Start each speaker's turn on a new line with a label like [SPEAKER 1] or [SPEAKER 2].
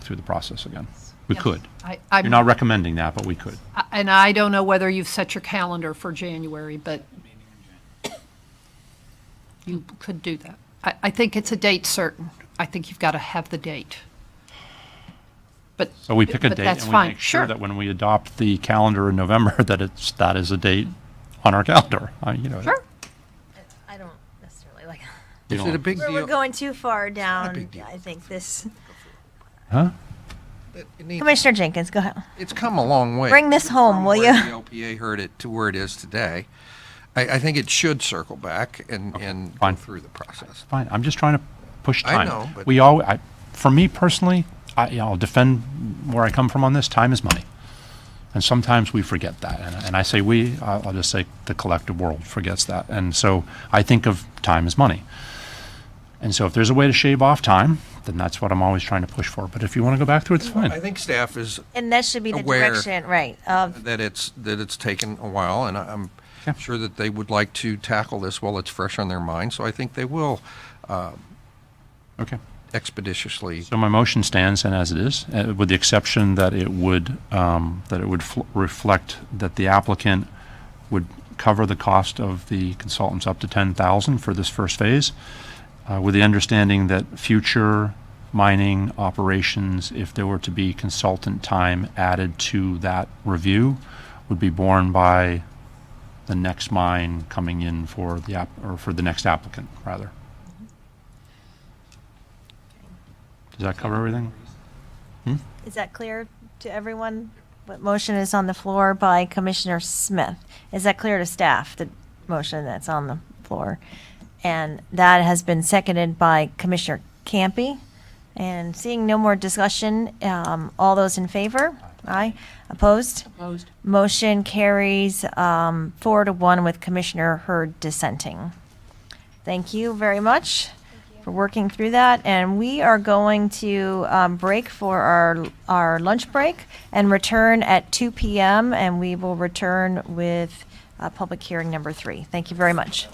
[SPEAKER 1] through the process again. We
[SPEAKER 2] Yes.
[SPEAKER 1] could.
[SPEAKER 2] I-
[SPEAKER 1] You're
[SPEAKER 2] I'm-
[SPEAKER 1] not recommending that, but we could.
[SPEAKER 2] I- And I don't know whether you've set your calendar for January, but you could do that. I, I think it's a date certain. I think you've got to have the date. But.
[SPEAKER 1] So we pick a
[SPEAKER 2] but
[SPEAKER 1] date
[SPEAKER 2] that's
[SPEAKER 1] and we
[SPEAKER 2] fine.
[SPEAKER 1] make sure
[SPEAKER 2] Sure.
[SPEAKER 1] that when we adopt the calendar in November, that it's, that is a date on our calendar. I- You know,
[SPEAKER 2] Sure.
[SPEAKER 3] I don't necessarily like.
[SPEAKER 1] you
[SPEAKER 4] Is
[SPEAKER 1] don't-
[SPEAKER 4] it a big
[SPEAKER 3] We're,
[SPEAKER 4] deal?
[SPEAKER 3] we're going too far down.
[SPEAKER 4] big deal.
[SPEAKER 3] I think this.
[SPEAKER 1] Huh?
[SPEAKER 4] It- it needs-
[SPEAKER 3] Commissioner Jenkins, go ahead.
[SPEAKER 4] It's come a long way.
[SPEAKER 3] Bring this home,
[SPEAKER 4] From
[SPEAKER 3] will
[SPEAKER 4] where
[SPEAKER 3] you?
[SPEAKER 4] The LPA heard it to where it is today. I, I think it should circle back and, and go
[SPEAKER 1] fine.
[SPEAKER 4] through the process.
[SPEAKER 1] Fine, I'm just trying to push
[SPEAKER 4] I
[SPEAKER 1] time.
[SPEAKER 4] know, but-
[SPEAKER 1] We all, I, for me personally, I, I'll defend where I come from on this, time is money. And sometimes we forget that, and, and I say we, I'll, I'll just say the collective world forgets that. And so I think of time as money. And so if there's a way to shave off time, then that's what I'm always trying to push for. But if you want to go back through, it's
[SPEAKER 4] I
[SPEAKER 1] fine.
[SPEAKER 4] think staff is
[SPEAKER 3] And that should be the
[SPEAKER 4] Aware.
[SPEAKER 3] direction, right? Of
[SPEAKER 4] that it's, that it's taken a while, and I- I'm
[SPEAKER 1] Yeah.
[SPEAKER 4] sure that they would like to tackle this while it's fresh on their mind, so I think they will
[SPEAKER 1] Okay.
[SPEAKER 4] expeditiously.
[SPEAKER 1] So my motion stands and as it is, uh, with the exception that it would, um, that it would fl- reflect that the applicant would cover the cost of the consultants up to 10,000 for this first phase, uh, with the understanding that future mining operations, if there were to be consultant time added to that review, would be borne by the next mine coming in for the app, or for the next applicant, rather. Does that cover everything?
[SPEAKER 3] is that clear to everyone? What motion is on the floor by Commissioner Smith? Is that clear to staff? The motion that's on the floor, and that has been seconded by Commissioner Campy. And seeing no more discussion, um, all those in favor? Aye. Opposed?
[SPEAKER 5] Opposed?
[SPEAKER 3] Motion carries um, four to one with Commissioner Hurd dissenting. Thank you very much for working through that. And we are going to um, break for our, our lunch break and return at 2 PM. And we will return with uh, public hearing number three. Thank you very much.